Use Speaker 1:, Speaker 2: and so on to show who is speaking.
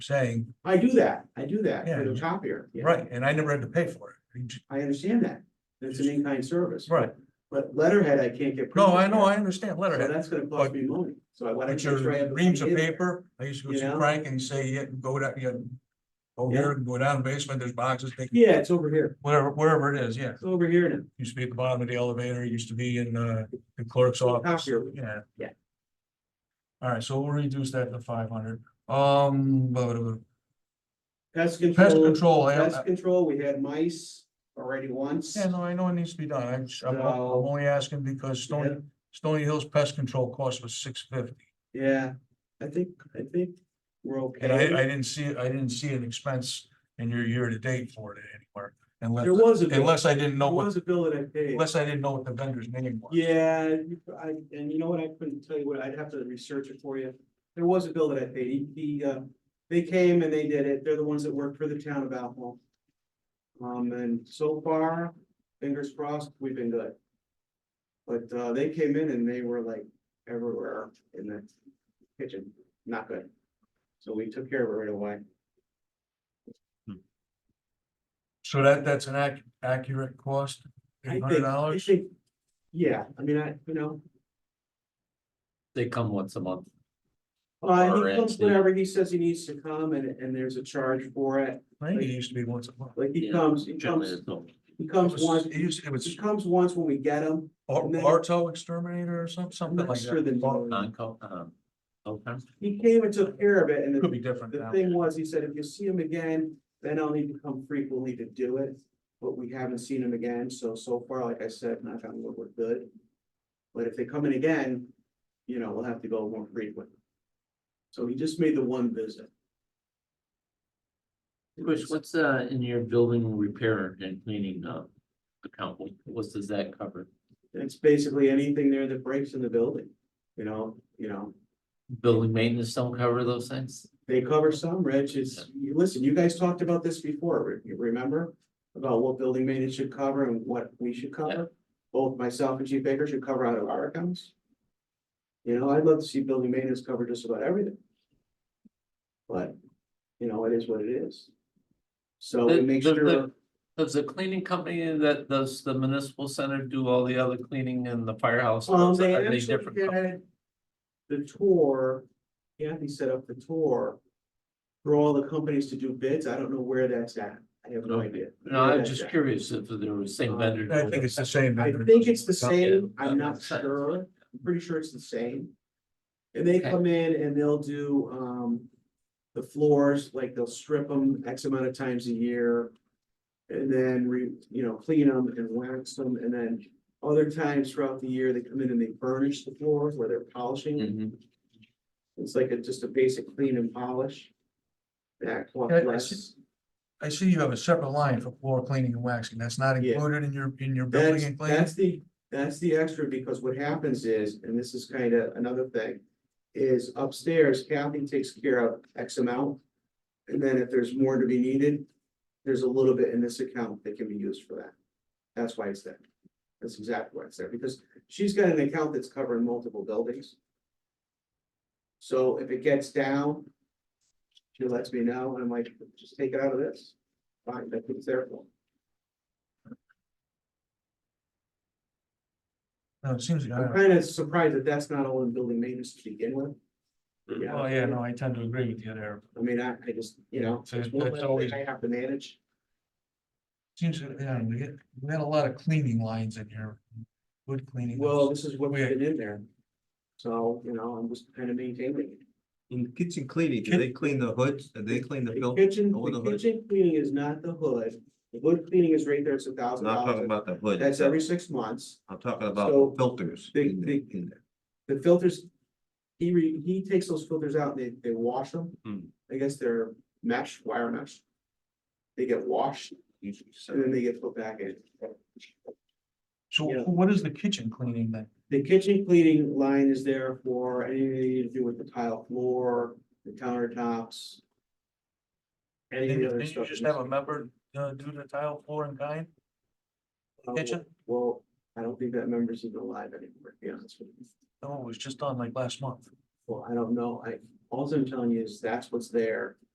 Speaker 1: saying,
Speaker 2: I do that, I do that for
Speaker 1: Yeah.
Speaker 2: the copier. yeah.
Speaker 1: right, and I never had to pay for it. You just-
Speaker 2: I understand that, it's an in-kind service.
Speaker 1: Right.
Speaker 2: But letterhead, I can't get.
Speaker 1: No,
Speaker 2: printed
Speaker 1: I know,
Speaker 2: yet.
Speaker 1: I understand
Speaker 2: So
Speaker 1: letterhead,
Speaker 2: that's gonna cost
Speaker 1: but-
Speaker 2: me money, so I wanna.
Speaker 1: but
Speaker 2: make sure I have
Speaker 1: your
Speaker 2: the
Speaker 1: reams of
Speaker 2: money in there.
Speaker 1: paper, I used to go
Speaker 2: You
Speaker 1: see
Speaker 2: know?
Speaker 1: Frank and he'd say, yeah, go down, yeah. Go here, go down basement, there's boxes, take
Speaker 2: Yeah, it's over here,
Speaker 1: wherever, wherever it is, yeah.
Speaker 2: it's over here now.
Speaker 1: Used to be at the bottom of the elevator, used to be in uh the clerk's office,
Speaker 2: Copier.
Speaker 1: yeah.
Speaker 2: Yeah.
Speaker 1: All right, so we'll reduce that to five hundred, um, blah, blah, blah.
Speaker 2: Pest
Speaker 1: pest
Speaker 2: control,
Speaker 1: control, I, I-
Speaker 2: pest control, we had mice already once.
Speaker 1: yeah, no, I know it needs to be done, I'm, I'm I'm
Speaker 2: So-
Speaker 1: only asking because Stony, Stony Hills Pest Control cost was six fifty.
Speaker 2: Yeah, I think, I think we're
Speaker 1: And I, I
Speaker 2: okay.
Speaker 1: didn't see, I didn't see an expense in your year-to-date for it anywhere,
Speaker 2: There
Speaker 1: unless,
Speaker 2: was a, bill- there
Speaker 1: unless I didn't know what,
Speaker 2: was a bill that I paid.
Speaker 1: unless I didn't know what the vendor's name was.
Speaker 2: Yeah, you- I, and you know what, I couldn't tell you what, I'd have to research it for you. There was a bill that I paid, He- he, uh, they came and they did it, they're the ones that work for the town of Alpha. Um, and so far, fingers crossed, we've been good. But, uh, they came in and they were like everywhere in the kitchen, not good. So we took care of it right away.
Speaker 1: So that, that's an ac- accurate cost,
Speaker 2: I
Speaker 1: eight
Speaker 2: think-
Speaker 1: hundred
Speaker 2: I
Speaker 1: dollars?
Speaker 2: think, yeah, I mean, I, you know,
Speaker 3: They come once a month.
Speaker 2: uh,
Speaker 3: Or
Speaker 2: he comes
Speaker 3: actually-
Speaker 2: whenever he says he needs to come and, and there's a charge for it.
Speaker 1: Maybe it used to be once a month.
Speaker 2: Like he
Speaker 3: Yeah,
Speaker 2: comes, he
Speaker 3: Generally,
Speaker 2: comes,
Speaker 3: it's not.
Speaker 2: he
Speaker 1: It
Speaker 2: comes
Speaker 1: was,
Speaker 2: once,
Speaker 1: it used, it
Speaker 2: he
Speaker 1: was
Speaker 2: comes once when we get him.
Speaker 1: Ar-
Speaker 2: and then-
Speaker 1: Arto exterminator or something,
Speaker 2: I'm
Speaker 1: something
Speaker 2: not
Speaker 1: like
Speaker 2: sure the
Speaker 1: that.
Speaker 2: name.
Speaker 3: non-co, um, okay.
Speaker 2: He came and took care of it and
Speaker 1: Could
Speaker 2: the,
Speaker 1: be different
Speaker 2: the
Speaker 1: now.
Speaker 2: thing was, he said, if you see him again, then I'll need to come frequently to do it. But we haven't seen him again, so, so far, like I said, knock on wood, we're good. But if they come in again, you know, we'll have to go more frequent. So he just made the one visit.
Speaker 3: Chris, what's, uh, in your building repair and cleaning, uh, account, what, what does that cover?
Speaker 2: It's basically anything there that breaks in the building, you know, you know,
Speaker 3: Building maintenance don't cover those things?
Speaker 2: They cover some, Rich, it's, you- listen, you guys talked about this before, re- you remember? About what building maintenance should cover and what we should cover. Both myself and Chief Baker should cover out of our accounts. You know, I'd love to see building maintenance cover just about everything. But, you know, it is what it is. So we
Speaker 3: Th-
Speaker 2: make
Speaker 3: th- th-
Speaker 2: sure,
Speaker 3: Does the cleaning company that does the municipal center do all the other cleaning in the firehouse?
Speaker 2: um,
Speaker 3: Are
Speaker 2: they
Speaker 3: they
Speaker 2: actually
Speaker 3: different companies?
Speaker 2: did the tour, Kathy set up the tour. For all the companies to do bids, I don't know where that's at, I have no
Speaker 3: Okay.
Speaker 2: idea.
Speaker 3: No,
Speaker 2: where
Speaker 3: I'm
Speaker 2: that's
Speaker 3: just
Speaker 2: at.
Speaker 3: curious if there was same
Speaker 2: Um,
Speaker 3: vendor.
Speaker 1: I think it's the same.
Speaker 2: I
Speaker 1: vendor.
Speaker 2: think it's the
Speaker 3: Yeah.
Speaker 2: same, I'm not sure, I'm pretty sure it's the same. And they
Speaker 3: Okay.
Speaker 2: come in and they'll do, um, the floors, like they'll strip them X amount of times a year. And then re, you know, clean them and wax them, and then other times throughout the year, they come in and they burnish the floors where they're polishing.
Speaker 3: Mhm.
Speaker 2: It's like a, just a basic clean and polish. That costs
Speaker 1: Yeah, I
Speaker 2: less,
Speaker 1: I see you have a separate line for floor cleaning and waxing. That's not
Speaker 2: Yeah.
Speaker 1: included in your, in your building
Speaker 2: That's,
Speaker 1: and cleaning?
Speaker 2: that's the, that's the extra, because what happens is, and this is kind of another thing, is upstairs Kathy takes care of X amount. And then if there's more to be needed, there's a little bit in this account that can be used for that. That's why it's there. That's exactly why it's there, because she's got an account that's covering multiple buildings. So if it gets down, she lets me know, and I'm like, just take it out of this. Fine, that's what it's there for.
Speaker 1: No, it seems,
Speaker 2: I'm
Speaker 1: like I-
Speaker 2: kind of surprised that that's not all in building maintenance to begin with.
Speaker 4: Hmm.
Speaker 2: Yeah.
Speaker 1: oh, yeah, no, I tend to agree with you there.
Speaker 2: I mean, I, I just, you know,
Speaker 1: So it's-
Speaker 2: one
Speaker 1: it's
Speaker 2: less
Speaker 1: always-
Speaker 2: thing I have to manage.
Speaker 1: Seems, yeah, we get, we had a lot of cleaning lines in here. Wood cleaning.
Speaker 2: Well, this is what we've
Speaker 1: Weird.
Speaker 2: been in there. So, you know, I'm just kind of maintaining it.
Speaker 4: In kitchen cleaning, do they clean the hoods? Do they clean the
Speaker 2: The
Speaker 4: film?
Speaker 2: kitchen,
Speaker 4: over
Speaker 2: the
Speaker 4: the hood.
Speaker 2: kitchen cleaning is not the hood. The hood cleaning is right there, it's a thousand
Speaker 4: Not talking
Speaker 2: dollars.
Speaker 4: about the hood.
Speaker 2: That's
Speaker 4: itself.
Speaker 2: every six months.
Speaker 4: I'm talking about
Speaker 2: So,
Speaker 4: the filters
Speaker 2: the-
Speaker 4: in the,
Speaker 2: the-
Speaker 4: in there.
Speaker 2: The filters, he re, he takes those filters out, and they, they wash them.
Speaker 4: Hmm.
Speaker 2: I guess they're mesh, wire mesh. They get washed
Speaker 4: Usually, so.
Speaker 2: and then they get put back in.
Speaker 1: So
Speaker 2: yeah.
Speaker 1: what is the kitchen cleaning then?
Speaker 2: The kitchen cleaning line is there for anything to do with the tile floor, the countertops. Any of
Speaker 1: Didn't
Speaker 2: the
Speaker 1: you-
Speaker 2: other
Speaker 1: didn't you
Speaker 2: stuff.
Speaker 1: just have a member uh, do the tile floor and kind?
Speaker 2: Uh,
Speaker 1: kitchen?
Speaker 2: Well, I don't think that member's even alive anymore, to be honest with you.
Speaker 1: Oh, No, it was just on like last month.
Speaker 2: Well, I don't know, I, all I'm telling you is that's what's there.